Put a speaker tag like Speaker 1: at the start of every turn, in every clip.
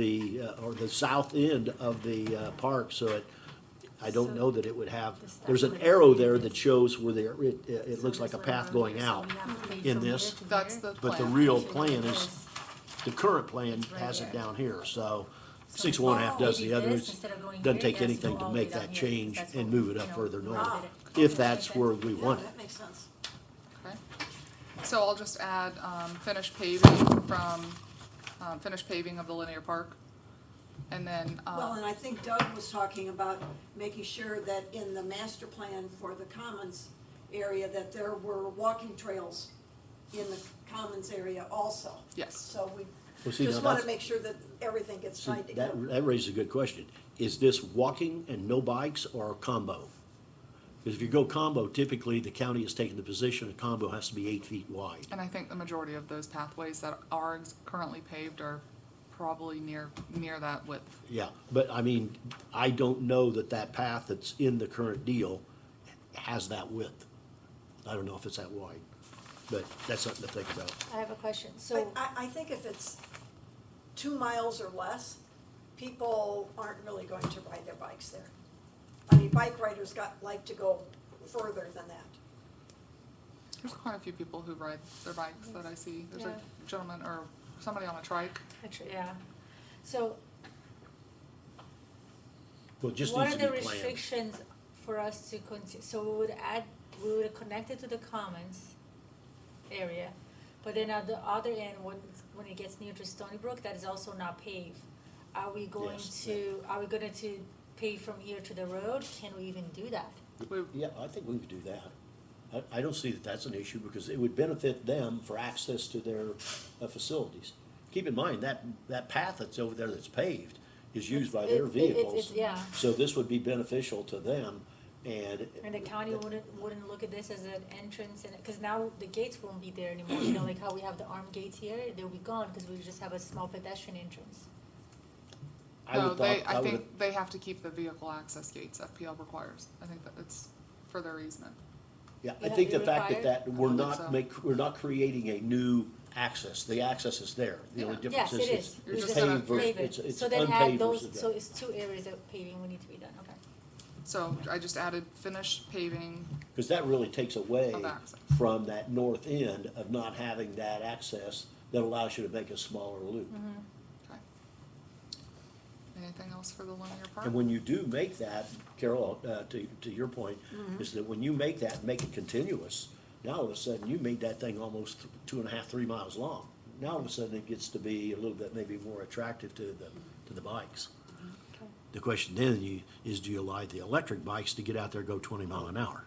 Speaker 1: the, uh, or the south end of the uh, park, so it, I don't know that it would have, there's an arrow there that shows where there, it, it looks like a path going out in this.
Speaker 2: That's the
Speaker 1: But the
Speaker 2: plan.
Speaker 1: real plan is, the current plan has it down here, so six of one half does the other. It's- Doesn't take anything to make that change and move it up further north, if that's where we
Speaker 3: No,
Speaker 1: want it.
Speaker 3: that makes sense.
Speaker 2: Okay. So I'll just add, um, finish paving from, um, finish paving of the linear park. And then,
Speaker 3: Well, and
Speaker 2: um,
Speaker 3: I think Doug was talking about making sure that in the master plan for the commons area, that there were walking trails in the commons area also.
Speaker 2: Yes.
Speaker 3: So we
Speaker 1: Well, see, now
Speaker 3: just wanna
Speaker 1: that's-
Speaker 3: make sure that everything gets
Speaker 1: See,
Speaker 3: tied together.
Speaker 1: That, that raises a good question. Is this walking and no bikes or combo? Because if you go combo, typically the county has taken the position a combo has to be eight feet wide.
Speaker 2: and I think the majority of those pathways that are ex- currently paved are probably near, near that width.
Speaker 1: Yeah, but I mean, I don't know that that path that's in the current deal has that width. I don't know if it's that wide, but that's something to think about.
Speaker 4: I have a question,
Speaker 3: But
Speaker 4: so,
Speaker 3: I, I think if it's two miles or less, people aren't really going to ride their bikes there. I mean, bike riders got, like to go further than that.
Speaker 2: There's quite a few people who ride their bikes that I see. There's a
Speaker 4: Yeah.
Speaker 2: gentleman or somebody on a trike.
Speaker 4: actually, yeah, so
Speaker 1: Well, it just
Speaker 4: what
Speaker 1: needs
Speaker 4: are
Speaker 1: to
Speaker 4: the
Speaker 1: be planned.
Speaker 4: restrictions for us to continue? So we would add, we would connect it to the commons area, but then at the other end, when, when it gets near to Stony Brook, that is also not paved. Are we going
Speaker 1: Yes.
Speaker 4: to, are we gonna to pave from here to the road? Can we even do that?
Speaker 2: We-
Speaker 1: Yeah, I think we would do that. I, I don't see that that's an issue because it would benefit them for access to their uh, facilities. Keep in mind, that, that path that's over there that's paved is used by their
Speaker 4: It's- it- it- it's-
Speaker 1: vehicles.
Speaker 4: yeah.
Speaker 1: So this would be beneficial to them and.
Speaker 4: And the county wouldn't, wouldn't look at this as an entrance and, cause now the gates won't be there anymore, you know, like how we have the armed gates here, they'll be gone, cause we just have a small pedestrian entrance.
Speaker 1: I
Speaker 2: No,
Speaker 1: would
Speaker 2: they,
Speaker 1: thought-
Speaker 2: I
Speaker 1: would-
Speaker 2: think they have to keep the vehicle access gates FPL requires. I think that it's for their easement.
Speaker 1: Yeah, I
Speaker 4: Yeah,
Speaker 1: think the
Speaker 4: you're
Speaker 1: fact that
Speaker 4: required?
Speaker 1: that, we're
Speaker 2: I believe
Speaker 1: not
Speaker 2: so.
Speaker 1: make, we're not creating a new access, the access is there. The only
Speaker 2: Yeah.
Speaker 1: difference
Speaker 4: Yes,
Speaker 1: is
Speaker 4: it
Speaker 1: it's
Speaker 4: is.
Speaker 2: You're
Speaker 1: it's
Speaker 2: just gonna
Speaker 1: paved versus,
Speaker 2: pave
Speaker 4: Paving.
Speaker 1: it's it's
Speaker 4: So then add
Speaker 1: unpaved
Speaker 4: those,
Speaker 1: versus.
Speaker 4: so it's two areas of paving we need to be done, okay.
Speaker 2: So I just added finish paving
Speaker 1: Because that really takes away
Speaker 2: Of access.
Speaker 1: from that north end of not having that access that allows you to make a smaller loop.
Speaker 2: Mm-hmm. Okay. Anything else for the linear park?
Speaker 1: And when you do make that, Carol, uh, to, to your point,
Speaker 2: Mm-hmm.
Speaker 1: is that when you make that, make it continuous, now all of a sudden, you made that thing almost th- two and a half, three miles long. Now all of a sudden, it gets to be a little bit maybe more attractive to the, to the bikes. The question then you, is do you allow the electric bikes to get out there, go twenty mile an hour?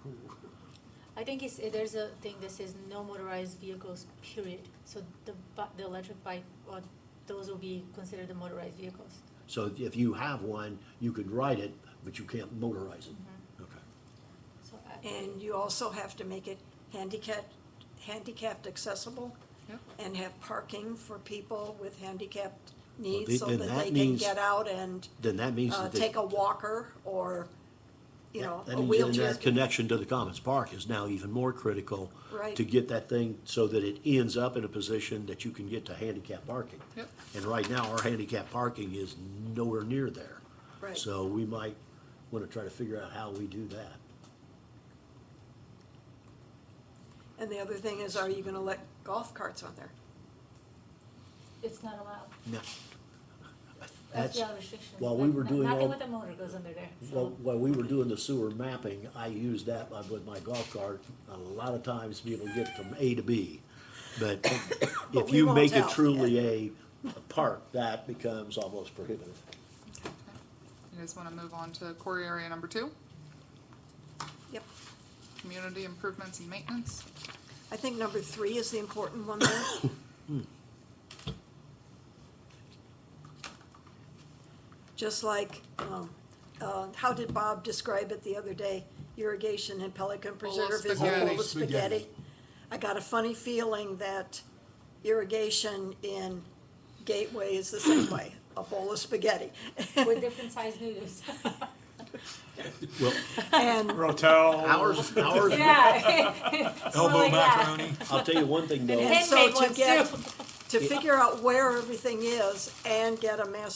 Speaker 4: I think it's, there's a thing that says no motorized vehicles, period, so the bu- the electric bike, or those will be considered the motorized vehicles.
Speaker 1: So if you have one, you could ride it, but you can't motorize it.
Speaker 3: Mm-hmm.
Speaker 1: Okay.
Speaker 4: So uh, I-
Speaker 3: And you also have to make it handicapped, handicapped accessible
Speaker 2: Yep.
Speaker 3: and have parking for people with
Speaker 1: the-
Speaker 3: handicapped needs so
Speaker 1: then
Speaker 3: that
Speaker 1: that
Speaker 3: they can
Speaker 1: means-
Speaker 3: get out and,
Speaker 1: Then that means
Speaker 3: uh,
Speaker 1: that.
Speaker 3: take a walker or, you
Speaker 1: Yeah,
Speaker 3: know,
Speaker 1: that
Speaker 3: a
Speaker 1: means then
Speaker 3: wheelchair.
Speaker 1: That connection to the Commons Park is now even more critical.
Speaker 3: Right.
Speaker 1: To get that thing so that it ends up in a position that you can get to handicap parking.
Speaker 2: Yep.
Speaker 1: And right now, our handicap parking is nowhere near there.
Speaker 3: Right.
Speaker 1: So we might wanna try to figure out how we do that.
Speaker 3: And the other thing is, are you gonna let golf carts on there?
Speaker 4: It's not allowed,
Speaker 1: Now,
Speaker 4: that's
Speaker 1: That's,
Speaker 4: the other restriction.
Speaker 1: while we
Speaker 4: Like,
Speaker 1: were
Speaker 4: no-
Speaker 1: doing all-
Speaker 4: Nothing with a motor goes under there, so.
Speaker 1: while, while we were doing the sewer mapping, I used that like, with my golf cart a lot of times to be able to get from A to B. But if
Speaker 3: But we
Speaker 1: you
Speaker 3: won't
Speaker 1: make it
Speaker 3: tell.
Speaker 1: truly a a park, that becomes almost prohibitive.
Speaker 2: You guys want to move on to core area number two,
Speaker 3: Yep.
Speaker 2: community improvements and maintenance?
Speaker 3: I think number three is the important one there. Just like, um, uh, how did Bob describe it the other day? Irrigation in Pelican
Speaker 2: Bowl of
Speaker 3: Preserve is a
Speaker 2: spaghetti.
Speaker 3: bowl of spaghetti. I got a funny feeling that irrigation in Gateway is the same way, a bowl of spaghetti.
Speaker 4: with different sized noodles.
Speaker 1: Well,
Speaker 3: And
Speaker 5: Rotel,
Speaker 1: ours, ours,
Speaker 4: yeah.
Speaker 5: elbow macaroni.
Speaker 1: I'll tell you one thing though,
Speaker 3: And so
Speaker 4: Handmade
Speaker 3: to
Speaker 4: ones
Speaker 3: get-
Speaker 4: too.
Speaker 3: to figure out where everything is and get a master